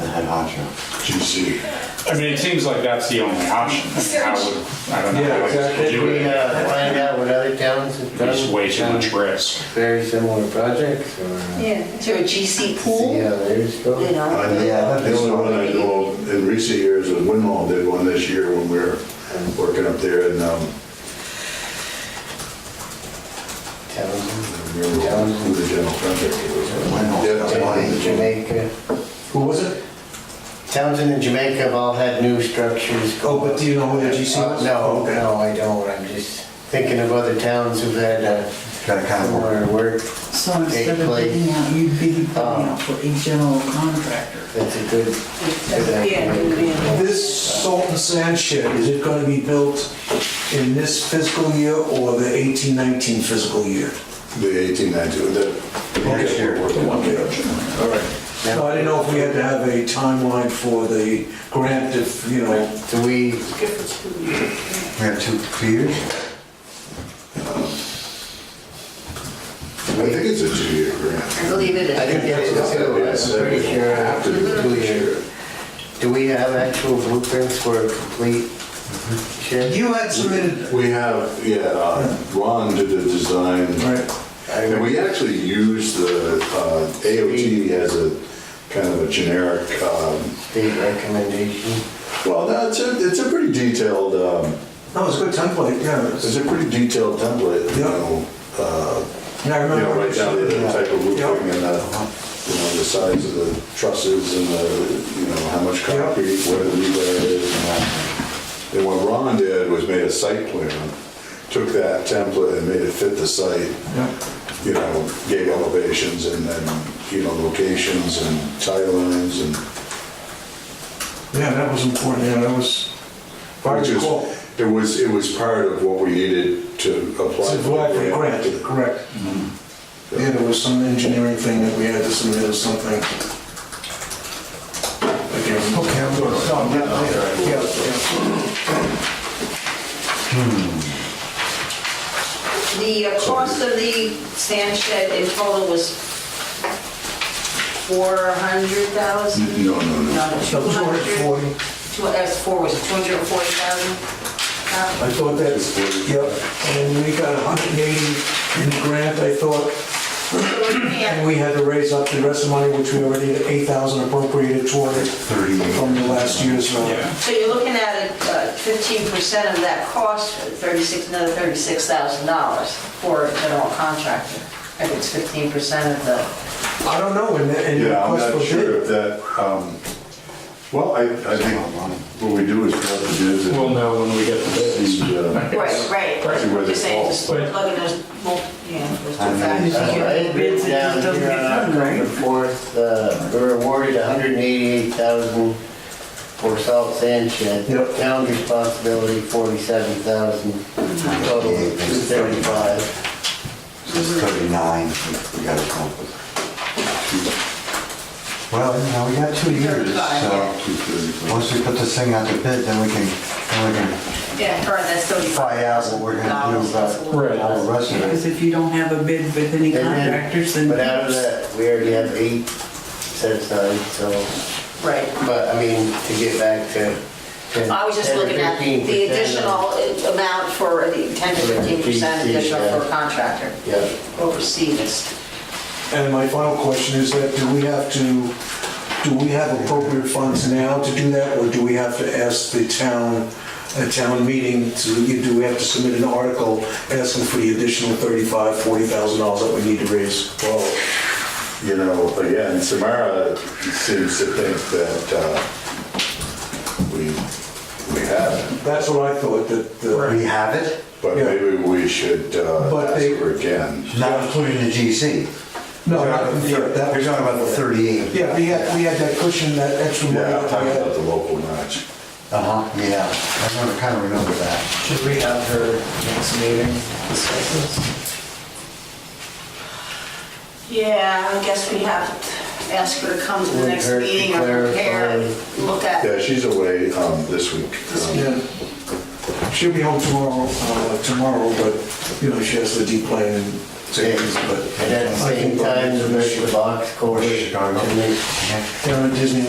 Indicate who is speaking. Speaker 1: honcho, GC.
Speaker 2: I mean, it seems like that's the only option. I would, I don't know.
Speaker 3: Yeah,
Speaker 2: how else to
Speaker 3: exactly.
Speaker 2: do
Speaker 4: We,
Speaker 2: it.
Speaker 4: uh, find out what other towns have done.
Speaker 2: There's way too
Speaker 4: done
Speaker 2: much risk.
Speaker 4: Very similar projects or see
Speaker 5: Yeah, is there a GC pool?
Speaker 4: how theirs go.
Speaker 5: You know?
Speaker 1: Uh, yeah,
Speaker 5: the
Speaker 1: the only one I know of in recent years was Winhall did one this year when we were working up there and, um, I
Speaker 4: Townsend,
Speaker 1: don't remember who the general contractor was.
Speaker 4: Townsend,
Speaker 1: Winhall.
Speaker 4: Jamaica.
Speaker 3: Who was it?
Speaker 4: Townsend and Jamaica have all had new structures. go
Speaker 3: Oh, but do you know who the GC
Speaker 4: up.
Speaker 3: was?
Speaker 4: No,
Speaker 3: Okay.
Speaker 4: no, I don't. I'm just thinking of other towns who've had uh,
Speaker 1: Got a kind of
Speaker 4: similar work.
Speaker 6: So instead of
Speaker 4: Basically,
Speaker 6: bidding out, you'd be bidding
Speaker 4: um,
Speaker 6: out for a general contractor.
Speaker 4: That's a good.
Speaker 5: Yeah, yeah.
Speaker 3: This salt and sand shed, is it gonna be built in this fiscal year or the eighteen nineteen fiscal year?
Speaker 1: the eighteen ninety, the next year.
Speaker 3: The one year.
Speaker 1: All right.
Speaker 3: No, I didn't know if we had to have a timeline for the grant if, you know,
Speaker 4: Do we,
Speaker 1: We have two years? I think it's a two-year grant.
Speaker 5: I believe it is.
Speaker 4: I think that's
Speaker 1: Yes,
Speaker 4: two, I'm pretty sure.
Speaker 1: After the two year.
Speaker 4: do we have actual blueprints for a complete shed?
Speaker 3: you had submitted,
Speaker 1: We have, yeah, uh, Ron did the design.
Speaker 3: right,
Speaker 1: And we actually use the uh, AOT as a kind of a generic, um,
Speaker 4: State recommendation.
Speaker 1: well, that's a, it's a pretty detailed, um,
Speaker 3: no, it's a good template, yeah.
Speaker 1: it's
Speaker 3: it's-
Speaker 1: a pretty detailed template, you
Speaker 3: Yeah.
Speaker 1: know, uh,
Speaker 3: Yeah, I
Speaker 1: you know,
Speaker 3: remember.
Speaker 1: right down to the type of
Speaker 3: Yeah. Uh-huh.
Speaker 1: roofing and the, you know, the size of the trusses and the, you know, how much
Speaker 3: Yeah.
Speaker 1: concrete, where the rebar is and that. And what Ron did was made a site plan, took that template and made it fit the site.
Speaker 3: Yeah.
Speaker 1: you know, gave elevations and then, you know, locations and tie lines and.
Speaker 3: Yeah, that was important, yeah, that was, if I
Speaker 1: which is-
Speaker 3: recall,
Speaker 1: It was, it was part of what we needed to apply.
Speaker 3: it's a black and grant, correct.
Speaker 1: Mm-hmm.
Speaker 3: Yeah, there was some engineering thing that we had to submit or something. Okay, I'm going, no, yeah, yeah, yeah.
Speaker 5: The uh, cost of the sand shed in total was 400,000?
Speaker 1: No, no, no.
Speaker 3: So
Speaker 5: 200.
Speaker 3: 240,
Speaker 5: Two- That's four, was it 240,000?
Speaker 3: I thought that's, yep, and we got 180 in the grant, I thought, and we had to raise up the rest of the money, which we already had 8,000 appropriated toward it from the last year's, uh,
Speaker 5: So you're looking at uh, 15% of that cost, 36, another $36,000 for a general contractor. I think it's 15% of the,
Speaker 3: I don't know, and, and.
Speaker 1: Yeah, I'm not
Speaker 3: request for bid.
Speaker 1: sure if that, um, well, I, I think what we do is grab the bids and.
Speaker 2: We'll know when we get the bids.
Speaker 1: see, uh,
Speaker 5: right, right.
Speaker 1: See where they
Speaker 5: You're saying
Speaker 1: fall.
Speaker 5: just plug in those, mul- yeah, those two
Speaker 6: mean,
Speaker 5: factors.
Speaker 6: I
Speaker 4: All right,
Speaker 6: Bids, it
Speaker 4: down
Speaker 6: just doesn't
Speaker 4: here
Speaker 6: get
Speaker 4: on
Speaker 6: done, right?
Speaker 4: October fourth, uh, we were awarded hundred and eighty-eight thousand for salt sand shed.
Speaker 3: Yep.
Speaker 4: Town responsibility, forty-seven thousand, total two thirty-five.
Speaker 7: It's 39, we gotta come up with. Well, you know, we got two years, so once we put this thing out to bid, then we can, then we can
Speaker 5: Yeah, current, that's 35.
Speaker 7: try out what we're gonna do about all the rest of
Speaker 6: Because
Speaker 7: it.
Speaker 6: if you don't have a bid with any contractors, then.
Speaker 4: But out of that, we already have eight set aside, so,
Speaker 5: Right.
Speaker 4: but I mean, to get back to. 10
Speaker 5: I was just
Speaker 4: 10 or
Speaker 5: looking at
Speaker 4: 15%
Speaker 5: the
Speaker 4: of-
Speaker 5: additional amount for the 10 to 15 percent additional for a contractor
Speaker 4: Yeah.
Speaker 5: overseas.
Speaker 3: And my final question is that, do we have to, do we have appropriate funds now to do that, or do we have to ask the town, a town meeting, to, do we have to submit an article asking for the additional thirty-five, forty thousand dollars that we need to raise?
Speaker 1: Well, you know, again, Samara seems to think that uh, we, we have,
Speaker 3: That's what I thought, that,
Speaker 7: We
Speaker 3: the-
Speaker 7: have it,
Speaker 1: but
Speaker 3: Yeah.
Speaker 1: maybe we should uh,
Speaker 3: But
Speaker 1: ask
Speaker 3: they-
Speaker 1: her again.
Speaker 7: not including the GC.
Speaker 3: no, not, yeah,
Speaker 7: You're
Speaker 3: that was.
Speaker 7: talking about the 38.
Speaker 3: Yeah, we had, we had that cushion, that extra money.
Speaker 1: Yeah, I'm
Speaker 3: that we
Speaker 1: talking
Speaker 3: had.
Speaker 1: about the local match.
Speaker 7: Uh-huh, yeah, I remember, kinda remember that.
Speaker 8: Should we have her next meeting discuss this?
Speaker 5: Yeah, I guess we have to ask her to come to the
Speaker 4: Would
Speaker 5: next
Speaker 4: hurt to
Speaker 5: meeting or prepare,
Speaker 4: clarify.
Speaker 5: look at.
Speaker 1: Yeah, she's away um, this week. Um,
Speaker 3: Yeah. She'll be home tomorrow, uh, tomorrow, but, you know, she has to deplane and take these, but.
Speaker 4: And at the same time, the Mission Box Court,
Speaker 7: Chicago.
Speaker 4: to make
Speaker 3: Down at Disney